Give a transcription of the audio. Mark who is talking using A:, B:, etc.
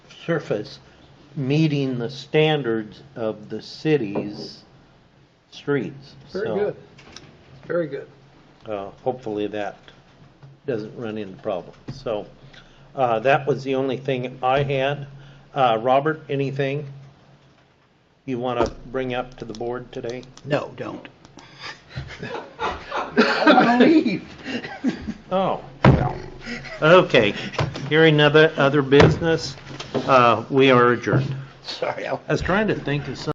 A: surface meeting the standards of the city's streets.
B: Very
A: So,
B: good. Very good.
A: uh, Hopefully that doesn't run into problems. So uh, that was the only thing I had. Uh, Robert, anything you want to bring up to the board today?
C: No, don't.
A: Oh, okay. Hearing other, other business, uh, we are adjourned.
C: Sorry, I
A: I was trying to think of something